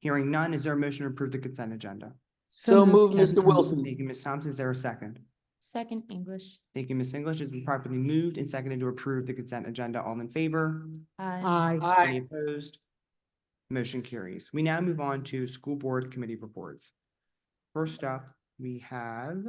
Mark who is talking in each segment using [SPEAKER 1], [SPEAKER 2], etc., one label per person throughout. [SPEAKER 1] Hearing none, is there a motion to approve the consent agenda?
[SPEAKER 2] So moved,
[SPEAKER 3] moved,
[SPEAKER 2] Mr.
[SPEAKER 3] Kevin
[SPEAKER 2] Wilson.
[SPEAKER 1] Thank you, Ms. Thompson. Is there a second?
[SPEAKER 3] Second, English.
[SPEAKER 1] Thank you, Ms. English. It's been properly moved and seconded to approve the consent agenda. All in favor?
[SPEAKER 3] Aye.
[SPEAKER 2] Aye.
[SPEAKER 4] Aye.
[SPEAKER 1] Any opposed? Motion carries. We now move on to school board committee reports. First up, we have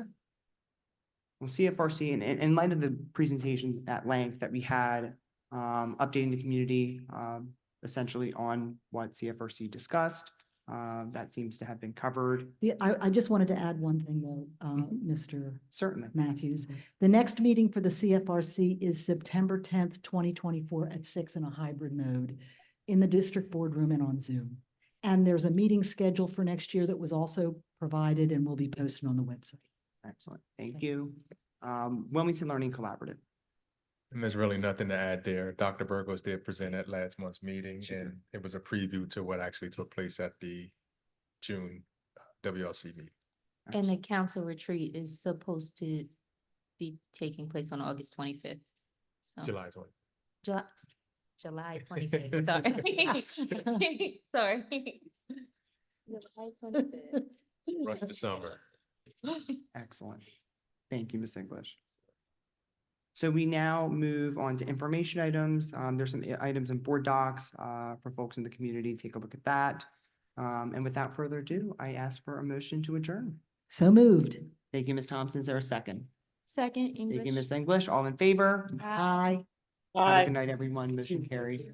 [SPEAKER 1] well, CFRC, and in, in light of the presentation at length that we had, um, updating the community, um, essentially on what CFRC discussed, uh, that seems to have been covered,
[SPEAKER 4] The, I, I just wanted to add one thing though, uh, Mr.
[SPEAKER 1] certainly.
[SPEAKER 4] Matthews. The next meeting for the CFRC is September tenth, twenty twenty-four at six in a hybrid mode in the district boardroom and on Zoom. And there's a meeting schedule for next year that was also provided and will be posted on the website.
[SPEAKER 1] Excellent. Thank you. Um, Wilmington Learning Collaborative.
[SPEAKER 5] And there's really nothing to add there. Dr. Burgos did present at last month's meeting and it was a preview to what actually took place at the June uh, WLC meeting.
[SPEAKER 3] And the council retreat is supposed to be taking place on August twenty-fifth. So,
[SPEAKER 5] July twenty.
[SPEAKER 3] Ju- July twenty-fifth, sorry. Sorry. July 25th.
[SPEAKER 5] Rush to summer.
[SPEAKER 1] Excellent. Thank you, Ms. English. So we now move on to information items. Um, there's some i- items in board docs, uh, for folks in the community. Take a look at that. Um, and without further ado, I ask for a motion to adjourn.
[SPEAKER 4] So moved.
[SPEAKER 1] Thank you, Ms. Thompson. Is there a second?
[SPEAKER 3] Second,
[SPEAKER 1] Thank you,
[SPEAKER 3] English. Ah.
[SPEAKER 1] Ms. English. All in favor?
[SPEAKER 3] Aye.
[SPEAKER 4] Aye.
[SPEAKER 1] Have a
[SPEAKER 2] Aye.
[SPEAKER 1] Good night, everyone. Motion carries.